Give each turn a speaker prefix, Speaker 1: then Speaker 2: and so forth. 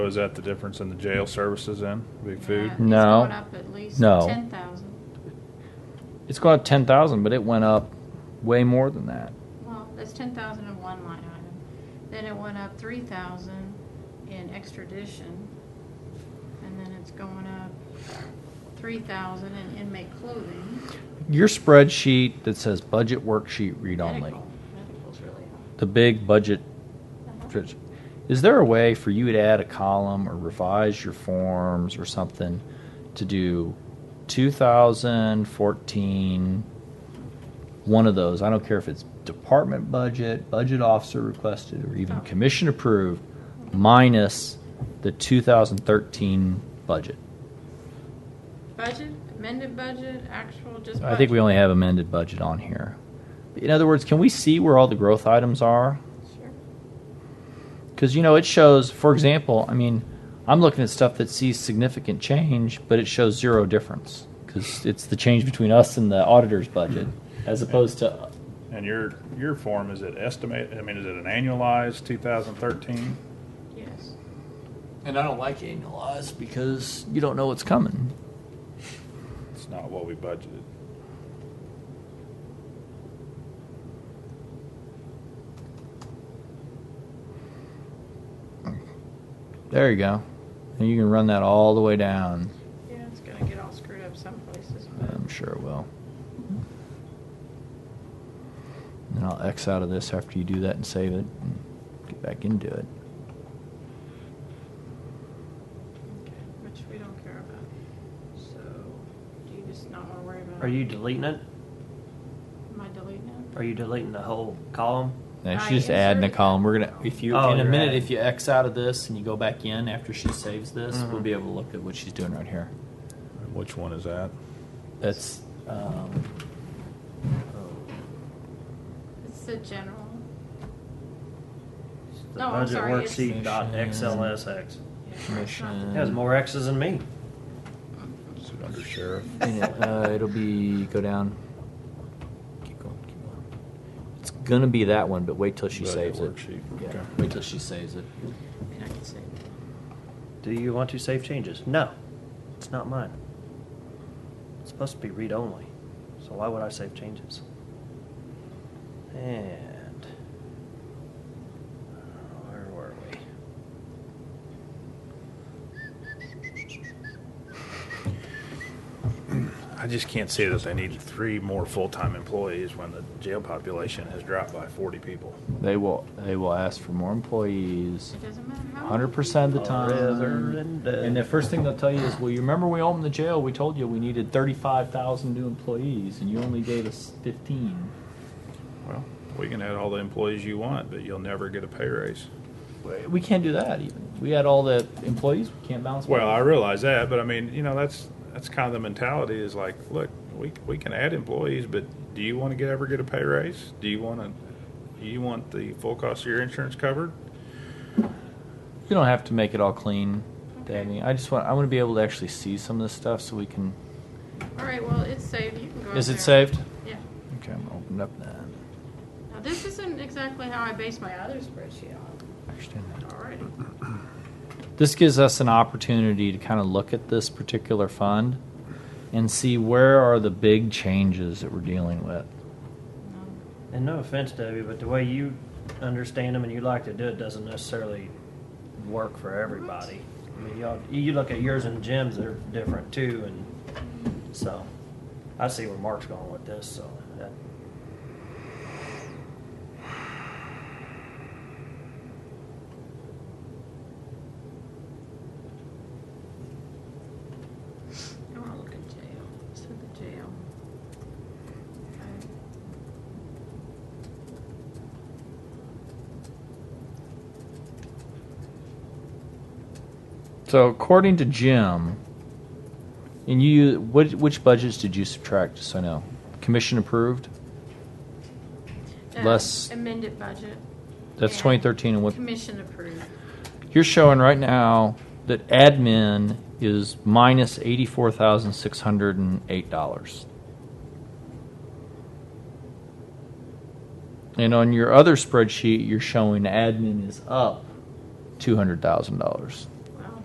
Speaker 1: Is that the difference in the jail services then? Big food?
Speaker 2: Yeah,
Speaker 3: No.
Speaker 2: It's gone up at least
Speaker 3: No.
Speaker 2: ten thousand.
Speaker 3: It's gone up ten thousand, but it went up way more than that.
Speaker 2: Well, that's ten thousand in one line item. Then it went up three thousand in extradition. And then it's going up three thousand in inmate clothing.
Speaker 3: Your spreadsheet that says budget worksheet read only,
Speaker 2: Medical. Medical's really up.
Speaker 3: the big budget
Speaker 2: Uh-huh.
Speaker 3: spreadsheet. Is there a way for you to add a column or revise your forms or something to do 2014, one of those? I don't care if it's department budget, budget officer requested, or even
Speaker 2: Oh.
Speaker 3: commission approved, minus the 2013 budget.
Speaker 2: Budget, amended budget, actual, just
Speaker 3: I think we
Speaker 2: budget.
Speaker 3: only have amended budget on here. In other words, can we see where all the growth items are?
Speaker 2: Sure.
Speaker 3: Because you know it shows. For example, I mean, I'm looking at stuff that sees significant change, but it shows zero difference because it's the change between us and the auditor's budget, as opposed to
Speaker 1: And your, your form, is it estimate, I mean, is it an annualized 2013?
Speaker 2: Yes.
Speaker 3: And I don't like annualized because you don't know what's coming.
Speaker 1: It's not what we budgeted.
Speaker 3: There you go. And you can run that all the way down.
Speaker 2: Yeah, it's gonna get all screwed up some places, but.
Speaker 3: I'm sure it will. And I'll X out of this after you do that and save it. And get back into it.
Speaker 2: Okay, Which we don't care about. So, do you just not wanna worry about?
Speaker 4: Are you deleting it?
Speaker 2: Am I deleting it?
Speaker 4: Are you deleting the whole column?
Speaker 3: Now
Speaker 2: I
Speaker 3: she's just adding a
Speaker 2: inserted
Speaker 3: column.
Speaker 2: that.
Speaker 3: We're gonna if you
Speaker 4: Oh,
Speaker 3: in a
Speaker 4: you're
Speaker 3: minute
Speaker 4: adding.
Speaker 3: if you X out of this and you go back in after she saves this, we'll
Speaker 4: Mhm.
Speaker 3: be able to look at what she's doing right here.
Speaker 1: Which one is that?
Speaker 3: That's um,
Speaker 2: It's the general.
Speaker 4: Oh, It's The
Speaker 2: No, I'm
Speaker 4: budget
Speaker 2: sorry, it's-
Speaker 4: worksheet dot XLSX.
Speaker 2: yeah, it's not the-
Speaker 3: commission.
Speaker 4: It has more X's than me.
Speaker 1: Is it under sheriff?
Speaker 3: And it, uh, it'll be go down. Keep going, keep going. It's gonna be that one, but wait till she
Speaker 1: Budget
Speaker 3: saves it.
Speaker 1: worksheet,
Speaker 3: Yeah,
Speaker 1: okay.
Speaker 3: wait till she saves it.
Speaker 2: I mean, I can say that.
Speaker 4: Do you want to save changes? No, it's not mine. It's supposed to be read only. So why would I save changes? And where were we?
Speaker 1: I just can't see that they need three more full-time employees when the jail population has dropped by 40 people.
Speaker 3: They will. They will ask for more employees.
Speaker 2: It doesn't matter how.
Speaker 3: Hundred percent of the
Speaker 4: Rather
Speaker 3: time.
Speaker 4: than dead.
Speaker 3: And the first thing they'll tell you is, well, you remember we opened the jail, we told you we needed thirty-five thousand new employees, and you only gave us fifteen.
Speaker 1: Well, we can add all the employees you want, but you'll never get a pay raise.
Speaker 3: We- We can't do that even. We had all the employees, we can't balance.
Speaker 1: Well, I realize that, but I mean, you know, that's, that's kind of the mentality is like, look, we, we can add employees, but do you want to get, ever get a pay raise? Do you want to, you want the full cost of your insurance covered?
Speaker 3: You don't have to make it all clean,
Speaker 2: Okay.
Speaker 3: Debbie. I just want, I want to be able to actually see some of this stuff so we can,
Speaker 2: All right, well, it's saved. You can go.
Speaker 3: is
Speaker 2: up
Speaker 3: it
Speaker 2: there.
Speaker 3: saved?
Speaker 2: Yeah.
Speaker 3: Okay, I'm gonna open up that.
Speaker 2: Now, this isn't exactly how I base my other spreadsheet on.
Speaker 3: I understand that.
Speaker 2: All right.
Speaker 3: Mm-hmm. this gives us an opportunity to kind of look at this particular fund and see where are the big changes that we're dealing with.
Speaker 2: No.
Speaker 4: And no offense, Debbie, but the way you understand them and you like to do it doesn't necessarily work for everybody. I mean, y'all, you look at yours and Jim's, they're different too, and so I see where Mark's going with this. So that,
Speaker 2: I want to look at jail. So the jail. Okay.
Speaker 3: So according to Jim, and you, what, which budgets did you subtract? Just so I know, commission approved.
Speaker 2: Uh,
Speaker 3: Less-
Speaker 2: Amended budget.
Speaker 3: That's
Speaker 2: and
Speaker 3: 2013 and what-
Speaker 2: Commission approved.
Speaker 3: You're showing right now that admin is minus eighty-four thousand six hundred and eight dollars. And on your other spreadsheet, you're showing admin is up two hundred thousand dollars.